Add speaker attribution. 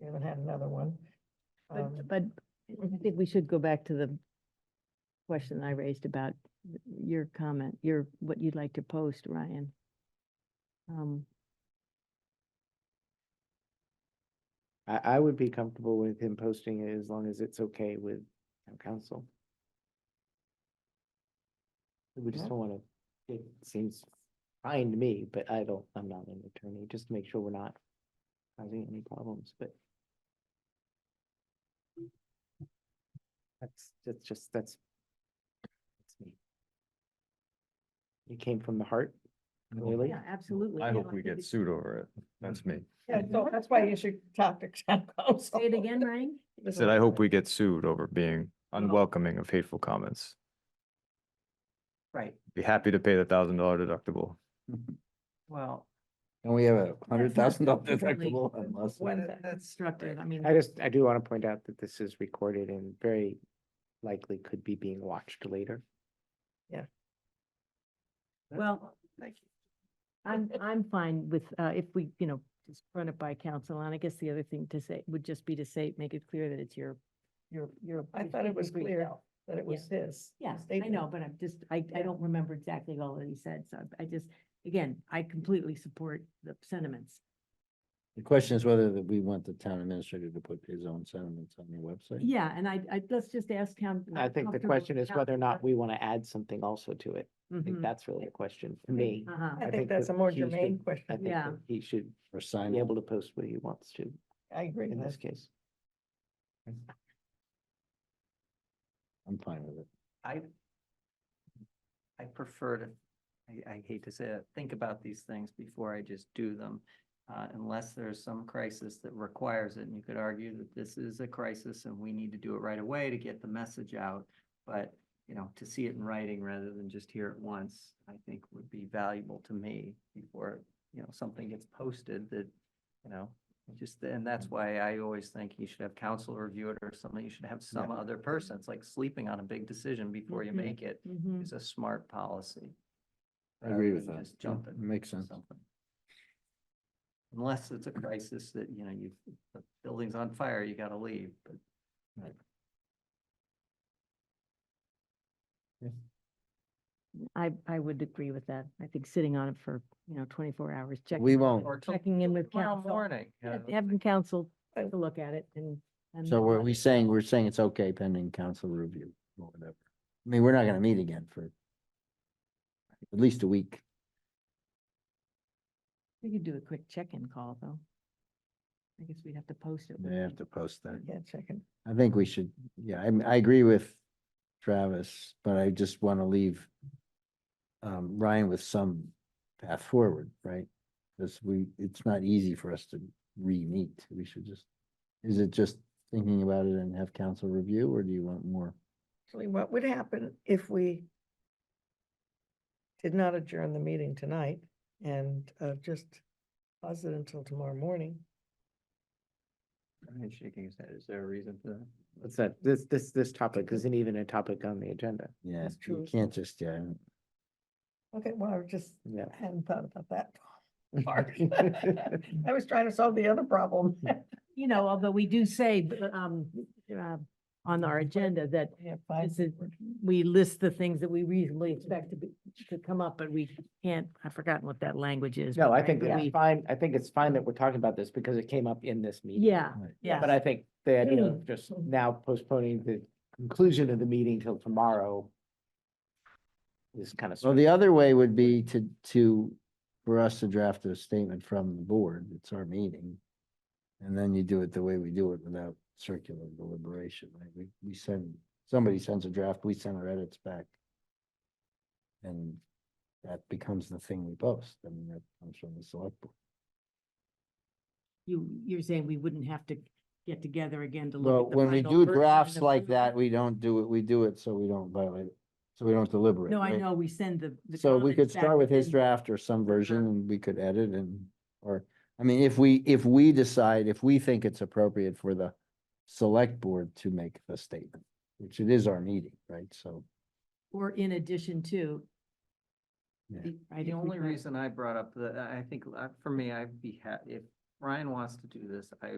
Speaker 1: We haven't had another one. Um,
Speaker 2: But, but I think we should go back to the question I raised about th- your comment, your, what you'd like to post, Ryan. Um,
Speaker 3: I, I would be comfortable with him posting it as long as it's okay with town council. We just
Speaker 1: Yeah.
Speaker 3: don't wanna, it seems fine to me, but I don't, I'm not an attorney, just to make sure we're not causing any problems, but. That's, that's just, that's. that's me. It came from the heart, really?
Speaker 2: yeah, absolutely.
Speaker 4: I
Speaker 2: No,
Speaker 4: hope we
Speaker 2: think
Speaker 4: get
Speaker 2: it's-
Speaker 4: sued over it. That's me.
Speaker 1: Yeah, so that's why you should talk to town council.
Speaker 2: Say it again, Ryan?
Speaker 4: I said, I hope we get sued over being
Speaker 1: No.
Speaker 4: unwelcoming of hateful comments.
Speaker 1: Right,
Speaker 4: Be happy to pay the thousand dollar deductible.
Speaker 1: well,
Speaker 5: And we have a hundred thousand dollar
Speaker 2: That's not
Speaker 5: deductible
Speaker 2: definitely
Speaker 5: unless.
Speaker 1: when
Speaker 5: we-
Speaker 1: that- that's structured, I mean.
Speaker 3: I just, I do want to point out that this is recorded and very likely could be being watched later.
Speaker 2: Well,
Speaker 1: Thank you.
Speaker 2: I'm, I'm fine with, uh, if we, you know, just run it by council, and I guess the other thing to say would just be to say, make it clear that it's your, your, your.
Speaker 1: I
Speaker 2: your
Speaker 1: thought it was
Speaker 2: degree.
Speaker 1: clear that it was his.
Speaker 2: Yeah, I
Speaker 1: statement.
Speaker 2: know, but I'm just, I, I
Speaker 1: Yeah.
Speaker 2: don't remember exactly all that he said, so I just, again, I completely support the sentiments.
Speaker 5: The question is whether that we want the town administrator to put his own sentiments on the website.
Speaker 2: Yeah, and I, I, let's just ask him.
Speaker 3: I think the question is whether or not we want to add something also to it. I think
Speaker 2: Uh
Speaker 3: that's really a question for me.
Speaker 2: huh,
Speaker 1: I
Speaker 3: I
Speaker 1: think
Speaker 3: think
Speaker 1: that's a
Speaker 3: that
Speaker 1: more
Speaker 3: he should-
Speaker 1: germane
Speaker 3: I
Speaker 1: question.
Speaker 3: think
Speaker 2: Yeah.
Speaker 3: that he should
Speaker 5: Or sign
Speaker 3: be
Speaker 5: it.
Speaker 3: able to post what he wants to
Speaker 1: I agree
Speaker 3: in
Speaker 1: with
Speaker 3: this
Speaker 1: this.
Speaker 3: case.
Speaker 5: I'm fine with it.
Speaker 6: I, I prefer to, I, I hate to say it, think about these things before I just do them. Uh, unless there's some crisis that requires it, and you could argue that this is a crisis and we need to do it right away to get the message out. But, you know, to see it in writing rather than just hear it once, I think would be valuable to me before, you know, something gets posted that, you know, just, and that's why I always think you should have counsel review it or something, you should have some other person. It's like sleeping on a big decision before you
Speaker 2: Mhm.
Speaker 6: make it
Speaker 2: mhm.
Speaker 6: is a smart policy.
Speaker 5: I agree
Speaker 6: rather
Speaker 5: with
Speaker 6: than
Speaker 5: that.
Speaker 6: Just jumping.
Speaker 5: Makes
Speaker 6: to
Speaker 5: sense.
Speaker 6: something. Unless it's a crisis that, you know, you, the building's on fire, you gotta leave, but
Speaker 2: I, I would agree with that. I think sitting on it for, you know, twenty-four hours, checking,
Speaker 5: We won't.
Speaker 6: or till
Speaker 2: checking in with
Speaker 6: tomorrow
Speaker 2: council.
Speaker 6: morning. you
Speaker 2: yeah,
Speaker 6: know,
Speaker 2: Having council take a look at it and. and
Speaker 5: So were
Speaker 2: let
Speaker 5: we
Speaker 2: us
Speaker 5: saying,
Speaker 2: know.
Speaker 5: we're saying it's okay pending council review or whatever? I mean, we're not gonna meet again for at least a week.
Speaker 2: We could do a quick check-in call, though. I guess we'd have to post it.
Speaker 5: They
Speaker 2: wouldn't we?
Speaker 5: have to post that.
Speaker 1: Yeah, checking.
Speaker 5: I think we should, yeah, I, I agree with Travis, but I just want to leave um, Ryan with some path forward, right? Because we, it's not easy for us to re-meet. We should just, is it just thinking about it and have council review, or do you want more?
Speaker 1: Actually, what would happen if we did not adjourn the meeting tonight and uh, just pause it until tomorrow morning?
Speaker 6: Ryan's shaking his head. Is there a reason for that?
Speaker 3: What's that? This, this, this topic isn't even a topic on the agenda.
Speaker 5: Yeah,
Speaker 1: That's
Speaker 5: you
Speaker 1: true.
Speaker 5: can't just, yeah.
Speaker 1: Okay, well, I just
Speaker 3: Yeah.
Speaker 1: hadn't thought about that part. I was trying to solve the other problem.
Speaker 2: You know, although we do say, b- um, uh, on our agenda that
Speaker 1: Yeah, fine.
Speaker 2: This is- we list the things that we reasonably expect to be, to come up, but we can't, I've forgotten what that language is.
Speaker 3: No,
Speaker 2: but
Speaker 3: I
Speaker 2: right,
Speaker 3: think
Speaker 2: but
Speaker 3: it's
Speaker 2: we-
Speaker 3: fine. I think it's fine that we're talking about this because it came up in this meeting.
Speaker 2: Yeah, yeah.
Speaker 3: But I think the idea of just now postponing the conclusion of the meeting till tomorrow is kind of.
Speaker 5: Well, the other way would be to, to, for us to draft a statement from the board. It's our meeting. And then you do it the way we do it without circular deliberation, right? We, we send, somebody sends a draft, we send our edits back. And that becomes the thing we post. I mean, that comes from the select board.
Speaker 2: You, you're saying we wouldn't have to get together again to
Speaker 5: Well,
Speaker 2: look at the
Speaker 5: when we
Speaker 2: final
Speaker 5: do
Speaker 2: version
Speaker 5: drafts
Speaker 2: of
Speaker 5: like
Speaker 2: the-
Speaker 5: that, we don't do it, we do it so we don't violate, it, so we don't deliberate.
Speaker 2: No, I
Speaker 5: right?
Speaker 2: know, we send the. the
Speaker 5: So we could
Speaker 2: comments back,
Speaker 5: start with
Speaker 2: but
Speaker 5: his
Speaker 2: then-
Speaker 5: draft or some version
Speaker 2: Uh-huh.
Speaker 5: and we could edit and, or, I mean, if we, if we decide, if we think it's appropriate for the select board to make the statement, which it is our meeting, right? So,
Speaker 2: Or in addition to.
Speaker 5: Yeah.
Speaker 2: the- right,
Speaker 6: The
Speaker 2: if we
Speaker 6: only
Speaker 2: find-
Speaker 6: reason I brought up the, I I think, uh, for me, I'd be happy, if Ryan wants to do this, I